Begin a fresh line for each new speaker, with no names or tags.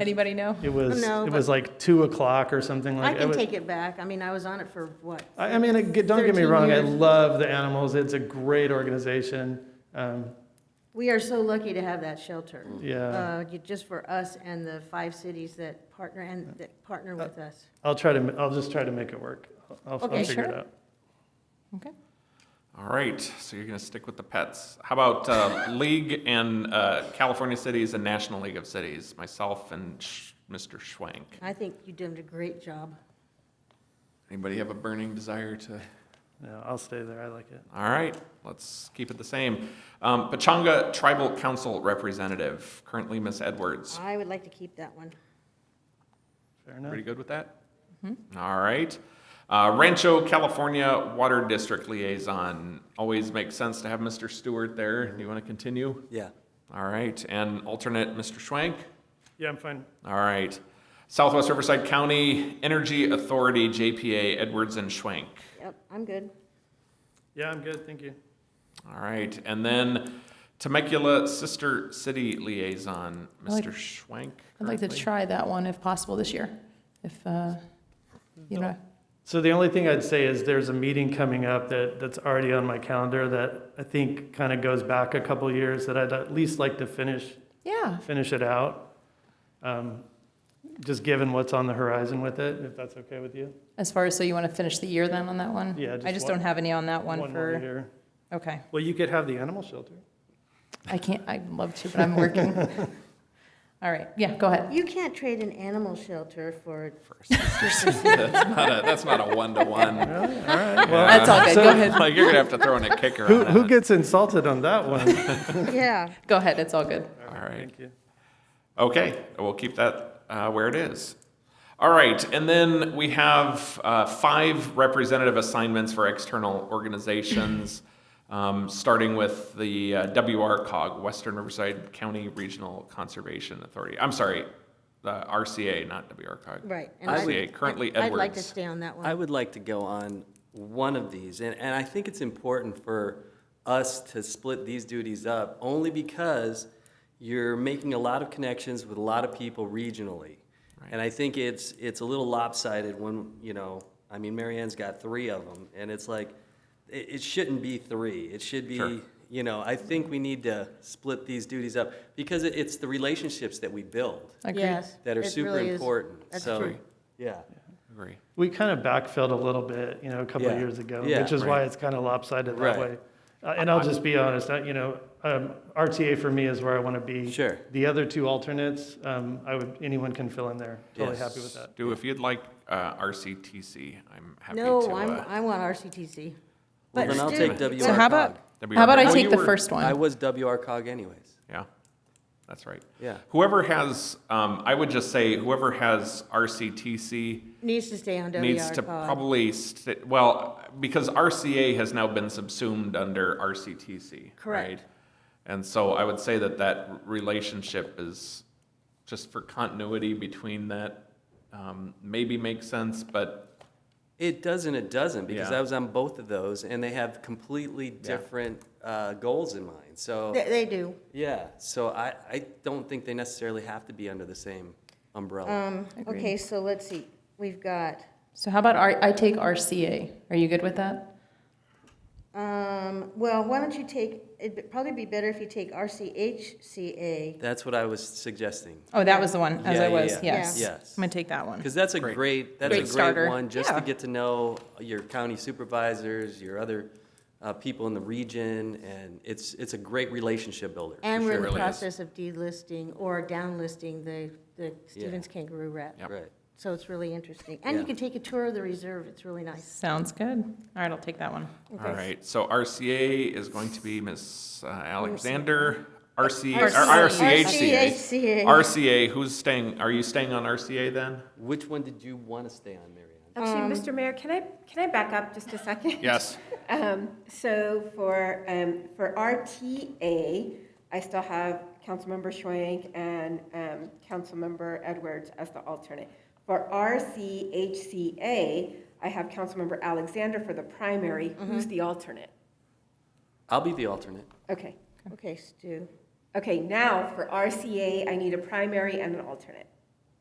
Anybody know?
It was,
No,
it
but-
was like 2 o'clock or something
I
like.
can
was-
take it back. I mean, I was on it for what?
I, I mean, it- don't get me
13
wrong, I
years.
love the animals, it's a great organization. Um,
We are so lucky to have that shelter.
Yeah,
Uh, you- Just for us and the five cities that partner, and that partner with us.
I'll try to, I'll just try to make it work. I'll, I'll
Okay,
figure it
sure.
out.
Okay.
All right, so you're going to stick with the pets. How about uh, League and uh, California Cities and National League of Cities? Myself and Sh- Mr. Schwank.
I think you did a great job.
Anybody have a burning desire to?
No, I'll stay there, I like it.
All right, let's keep it the same. Um, Pachanga Tribal Council Representative, currently Miss Edwards.
I would like to keep that one.
Fair enough.
Pretty good with that? All right. Uh, Rancho California Water District Liaison. Always makes sense to have Mr. Stewart there. Do you want to continue?
Yeah.
All right, and alternate Mr. Schwank?
Yeah, I'm fine.
All right. Southwest Riverside County Energy Authority, JPA, Edwards and Schwank.
Yep, I'm good.
Yeah, I'm good, thank you.
All right. And then Temecula Sister City Liaison,
I like-
Mr. Schwank.
I'd like to
currently.
try that one if possible this year, if, uh, you know,
So the only thing I'd say is there's a meeting coming up that, that's already on my calendar that I think kind of goes back a couple years that I'd at least like to finish,
yeah,
finish it out. Um, Just given what's on the horizon with it, if that's okay with you.
as far as, so you want to finish the year then on that one?
Yeah,
I
just
just
one-
don't have any on that one
more
for,
year.
okay.
Well, you could have the animal shelter.
I can't, I'd love to, but I'm working. All right, yeah, go ahead.
You can't trade an animal shelter for,
That's not a- that's not a one-to-one.
Really? All right. Well,
That's all good, go ahead,
Like, you're gonna have to throw in a kicker
who,
on
who
that.
gets insulted on that one?
yeah.
go ahead, it's all good.
All right.
Thank you.
Okay, we'll keep that uh, where it is. All right, and then we have uh, five representative assignments for external organizations, um, starting with the uh, WRCOG, Western Riverside County Regional Conservation Authority. I'm sorry, the RCA, not WRCOG.
Right. and I'd-
RCA, currently
I'd like to
Edwards.
stay on that
I
one.
would like to go on one of these, and, and I think it's important for us to split these duties up, only because you're making a lot of connections with a lot of people regionally. And I think it's, it's a little lopsided when, you know, I mean, Mary Ann's got three of them, and it's like, it, it shouldn't be three, it should
Sure.
be, you know, I think we need to split these duties up, because it, it's the relationships that we build
Agreed.
Yes.
that are
it
super
really is.
important,
That's
so,
true.
yeah.
Agree.
We kind of backfilled a little bit, you know, a couple of
Yeah.
years ago,
Yeah.
which is why
Right.
it's kind of lopsided that
Right.
way. Uh, And I'll just be honest, I- you know, um, RTA for me is where I want to be.
Sure.
The other two alternates, um, I would, anyone can fill in there. Totally happy with
Yes.
that.
Stu, if you'd like uh, RCTC, I'm happy to.
No, I'm,
uh,
I want RCTC.
Well,
But
then I'll
Stu-
take WR.
So how about,
WRCOG.
how about I
Well,
take
you
the
were-
first
I
one?
was WR cog anyways.
Yeah, that's right.
Yeah.
Whoever has, um, I would just say whoever has RCTC
Needs to stay on WR.
needs to
cog.
probably, st- well, because RCA has now been subsumed under RCTC,
Correct.
right? And so I would say that that relationship is, just for continuity between that, um, maybe makes sense, but
It does and it doesn't because
Yeah.
I was on both of those and they have completely different uh, goals in mind. So
They, they do.
yeah, so I, I don't think they necessarily have to be under the same umbrella.
Okay, so let's see. We've got,
So how about R- I take RCA? Are you good with that?
um, well, why don't you take, it'd probably be better if you take RCHCA.
That's what I was suggesting
Oh, that was the one, as
Yeah,
I
yeah,
was,
yeah.
yes.
Yeah.
I'm
Yes.
gonna take that one.
because that's a great, that's
Great
a great
starter.
one just
Yeah.
to get to know your county supervisors, your other uh, people in the region, and it's it's a great relationship builder. for
And we're in the
Really is.
process of delisting or downlisting the, the Stevens Kangaroo Rat.
Yep.
Right.
So it's really interesting. And you
Yeah.
can take a tour of the reserve. It's really nice.
Sounds good. All right, I'll take that one.
all right. So RCA is going to be Ms. Alexander, RC, or
RCA.
RCHCA.
RCHCA.
RCA, who's staying, are you staying on RCA then?
Which one did you want to stay on, Marianne?
Actually, Mr. Mayor, can I, can I back up just a second?
Yes.
Um, So for, um, for RTA, I still have Councilmember Schwank and um, Councilmember Edwards as the alternate. For RCHCA, I have Councilmember Alexander for the primary, who's the alternate.
I'll be the alternate.
Okay,
Okay, Stu.
okay, now for RCA, I need a primary and an alternate.